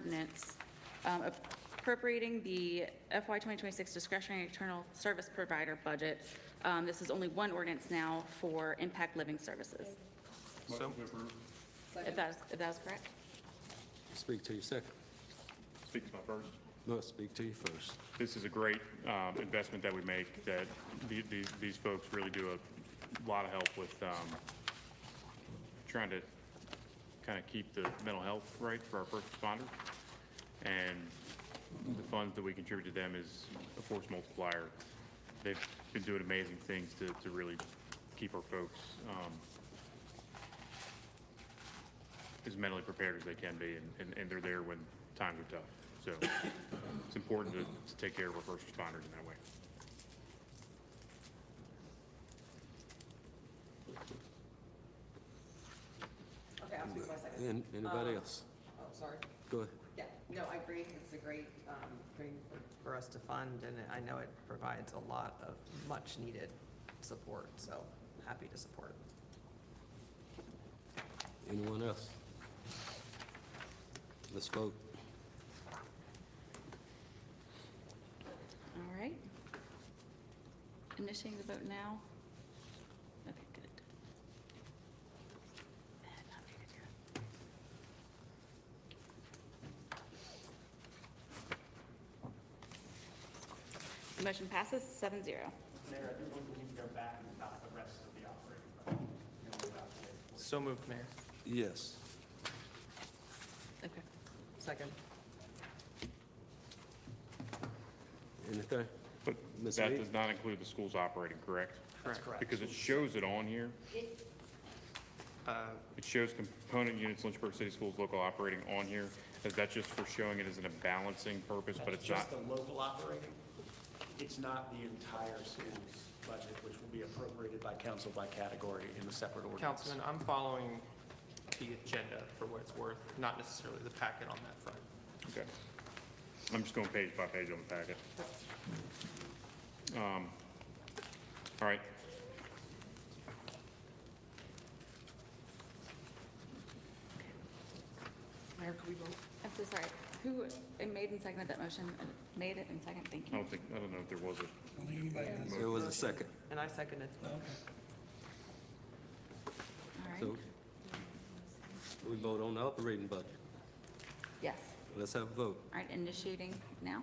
ordinance um, appropriating the FY 2026 discretionary external service provider budget. Um, This is only one ordinance now for impact living services, So, if that is, if that is correct. Speak to you second. speak to my first. No, speak to you first. This is a great um, investment that we make, that the- these these folks really do a lot of help with um, trying to kind of keep the mental health right for our first responders. And the funds that we contribute to them is a force multiplier. They've been doing amazing things to to really keep our folks um, as mentally prepared as they can be, and- and, and they're there when times are tough. So it's important to, to take care of our first responders in that way. Okay, I'll speak for a second. And anybody else? Oh, sorry. Go ahead. Yeah, no, I agree. It's a great um, thing for- for us to fund, and I know it provides a lot of much-needed support, so happy to support. Anyone else? Let's vote. All right. Initiating the vote now. Okay, good. And I'm gonna do it. The Motion passes seven zero. Mayor, I think we need to go back and about the rest of the operating budget. you know, about the- So moved, Mayor. Yes. Okay. Second. Anything? But Ms. that Lee? does not include the schools operating, correct? That's correct. Because it shows it on here. Uh, It shows component units Lynchburg City Schools local operating on here. Is that just for showing it as in a balancing purpose, but That's it's not? just the local operating. It's not the entire school's budget, which will be appropriated by council by category in the separate ordinance. Councilman, I'm following the agenda for what it's worth, not necessarily the packet on that front. Okay. I'm just going page by page on the packet. Um, All right. Mayor, could we vote? I'm so sorry. Who uh, made and seconded that motion? Uh, Made it and second, thank I you. don't think, I don't know if there was a, There was a second. And I seconded. All So right. we vote on the operating budget. Yes. Let's have a vote. All right, initiating now.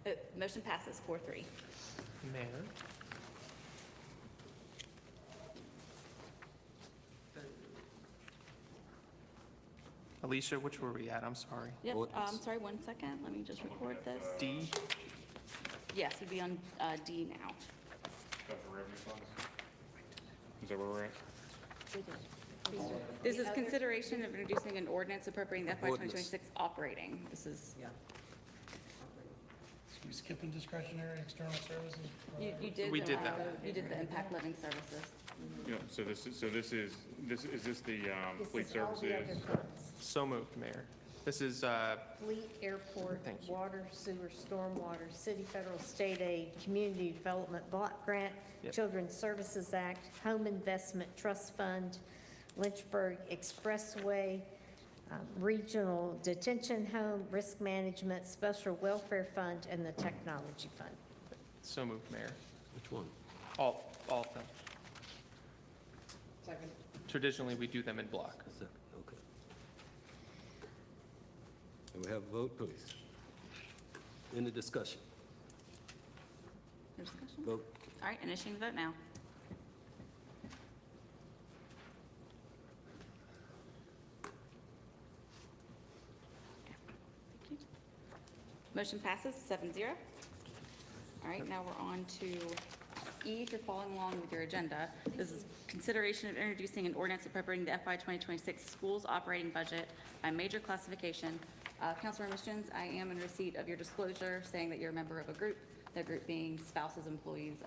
Okay. Uh, Motion passes four three. Mayor? Alicia, which were we at? I'm sorry. Yep, uh, I'm Ordinance. sorry, one second, let me just record this. D? Yes, we'd be on uh, D now. of the revenue funds. Is that where we're at? This is consideration of introducing an ordinance appropriating the FY Ordinance. 2026 operating. This is, Yeah. You skipping discretionary external services? you you did. We the, did uh, that. You did the impact living services. Yeah, so this is, so this is, this, is this the, um, This fleet is all the other services? funds. So moved, Mayor. This is, uh, Fleet, airport, Thank you. water, sewer, stormwater, city, federal, state aid, community development block grant, Yep. Children's Services Act, Home Investment Trust Fund, Lynchburg Expressway, um, Regional Detention Home, Risk Management, Special Welfare Fund, and the Technology Fund. so moved, Mayor. Which one? All, all of them. Second. Traditionally, we do them in block. A second, okay. And we have a vote, please. Any discussion? No Discussion? Vote. All right, initiating the vote now. Thank you. Motion passes seven zero. All right, now we're on to E, if you're following along with your agenda. This is consideration of introducing an ordinance appropriating the FY 2026 schools operating budget by major classification. Uh, Councilmember Jones, I am in receipt of your disclosure saying that you're a member of a group, the group being spouses, employees